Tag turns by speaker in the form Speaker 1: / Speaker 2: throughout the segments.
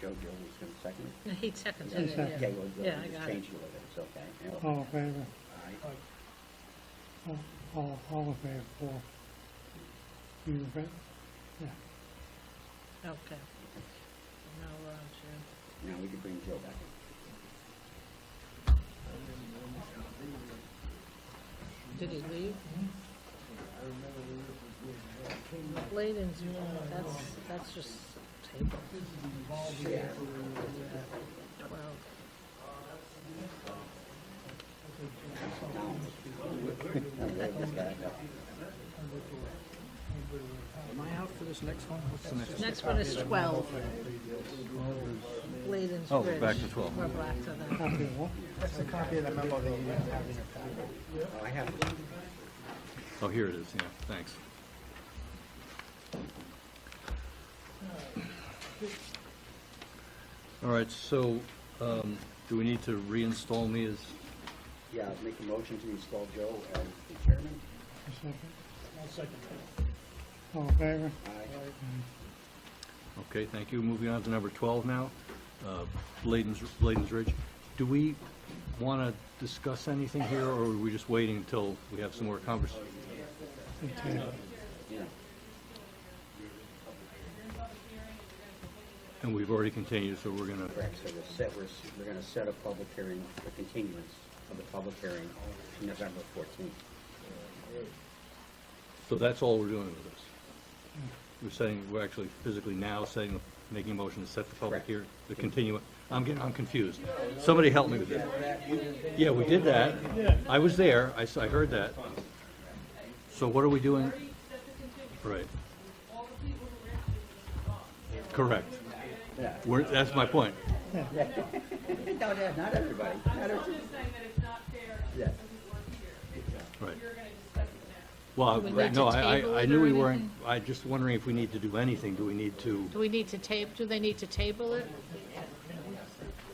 Speaker 1: Joe Gill was gonna second it?
Speaker 2: No, He seconded it,
Speaker 1: Yeah,
Speaker 2: yeah.
Speaker 1: you were,
Speaker 2: Yeah,
Speaker 1: you
Speaker 2: I
Speaker 1: just
Speaker 2: got it.
Speaker 1: changed it with it, it's okay. Yeah,
Speaker 3: All in favor?
Speaker 1: all right.
Speaker 3: All- All, all in favor, four. You in favor? Yeah.
Speaker 2: Okay. uh, Now we're on to,
Speaker 1: Now we can bring Joe back in.
Speaker 2: did he leave? Late in June, that's, that's just table. Twelve.
Speaker 1: Wave this guy up.
Speaker 4: Am I out for this next one? What's the next one?
Speaker 2: Next one is twelve. Leyland's
Speaker 4: Oh,
Speaker 2: Bridge.
Speaker 4: back to 12.
Speaker 2: We're back to that.
Speaker 3: Copy of what?
Speaker 4: That's the copy of the memo that you have in your packet.
Speaker 1: Oh, I have it.
Speaker 4: Oh, here it is, yeah, thanks. All right, so, um, do we need to reinstall me as,
Speaker 1: Yeah, I'll make a motion to install Joe as the chairman.
Speaker 3: A second? All in favor?
Speaker 1: Aye.
Speaker 4: okay, thank you. Moving on to number 12 now, uh, Bladen's, Bladen's Ridge. Do we want to discuss anything here, or are we just waiting until we have some more convers,
Speaker 3: Okay.
Speaker 1: Yeah.
Speaker 4: and we've already continued, so we're going to
Speaker 1: Correct, so we're set, we're, s- we're gonna set a public hearing, a continuance of the public hearing to November fourteenth.
Speaker 4: So that's all we're doing with this? We're saying, we're actually physically now saying, making a motion to set the public
Speaker 1: Correct.
Speaker 4: here, the continue, I'm getting, I'm confused. Somebody help me with this. Yeah, we did that. I was there, I, s- I heard that. So what are we doing? Right. Correct.
Speaker 1: Yeah.
Speaker 4: We're, that's my point.
Speaker 1: No, no, not everybody, not
Speaker 5: I'm
Speaker 1: everybody.
Speaker 5: just saying that it's not fair to
Speaker 1: Yeah.
Speaker 5: people who are here.
Speaker 4: Right.
Speaker 5: You're gonna discuss it now.
Speaker 4: Well,
Speaker 2: we
Speaker 4: right,
Speaker 2: need
Speaker 4: no,
Speaker 2: to
Speaker 4: I,
Speaker 2: table
Speaker 4: I, I
Speaker 2: it or
Speaker 4: knew we weren't,
Speaker 2: anything?
Speaker 4: I just wondering if we need to do anything. Do we need to?
Speaker 2: Do we need to table, do they need to table it?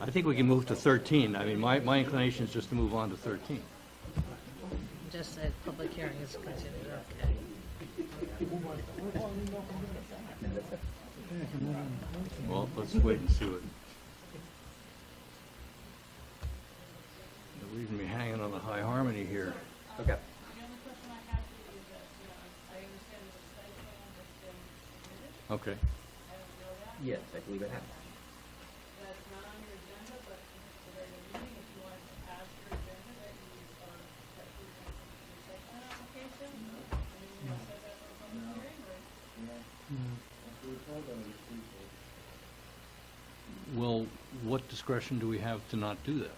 Speaker 4: I think we can move to 13. I mean, my, my inclination is just to move on to 13.
Speaker 2: Just that public hearing is continued, okay.
Speaker 4: Well, let's wait and see what. They're leaving me hanging on the high harmony here.
Speaker 1: Okay.
Speaker 4: Okay.
Speaker 1: Yes, I believe I have.
Speaker 4: Well, what discretion do we have to not do that?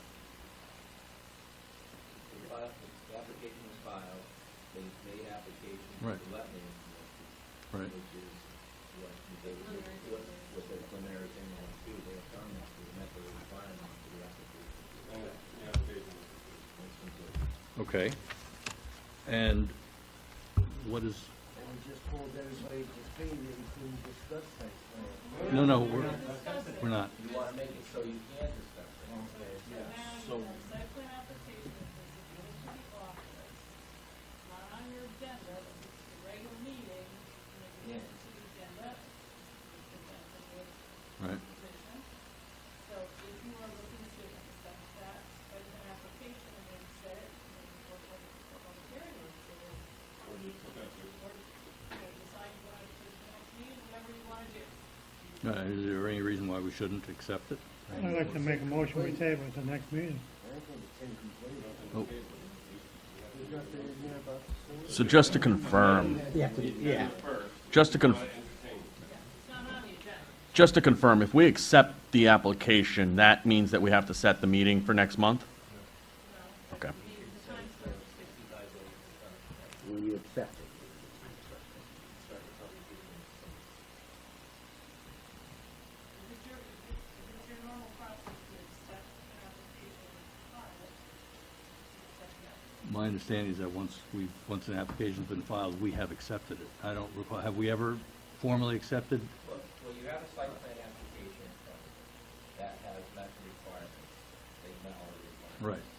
Speaker 6: The file- the application was filed, they made application for
Speaker 4: Right.
Speaker 6: the wetland, notice,
Speaker 4: Right.
Speaker 6: which is what they, what, what the preliminary thing they want to do, they have done that, they met the requirement for the application. It's complete.
Speaker 4: Okay. And what is,
Speaker 7: And we just told everybody to pay that we couldn't discuss that.
Speaker 4: no, no, we're, we're not.
Speaker 6: You wanna make it so you can discuss it.
Speaker 5: So. Site plan application is submitted to the office, not on your agenda, but it's the regular meeting, and if you have to the agenda, it's presented with
Speaker 4: Right.
Speaker 5: position. So if you are looking to accept that site plan application and then set it, and then work on it, work on the hearing, or so, or you, or, you know, decide you want to, do the next meeting, whatever you want to do.
Speaker 4: Uh, Is there any reason why we shouldn't accept it?
Speaker 3: I'd like to make a motion, we table at the next meeting.
Speaker 4: Oh,
Speaker 8: So just to confirm,
Speaker 1: Yeah.
Speaker 8: just to conf- just to confirm, if we accept the application, that means that we have to set the meeting for next month? Okay.
Speaker 1: When you accept it.
Speaker 5: If it's your, if it's, if it's your normal process to accept an application, file it, accept the application.
Speaker 4: My understanding is that once we, once an application's been filed, we have accepted it. I don't recall, have we ever formally accepted?
Speaker 6: Well, well, you have a site plan application in front of you that has met the requirements, they met all the requirements.
Speaker 4: Right.
Speaker 6: uh,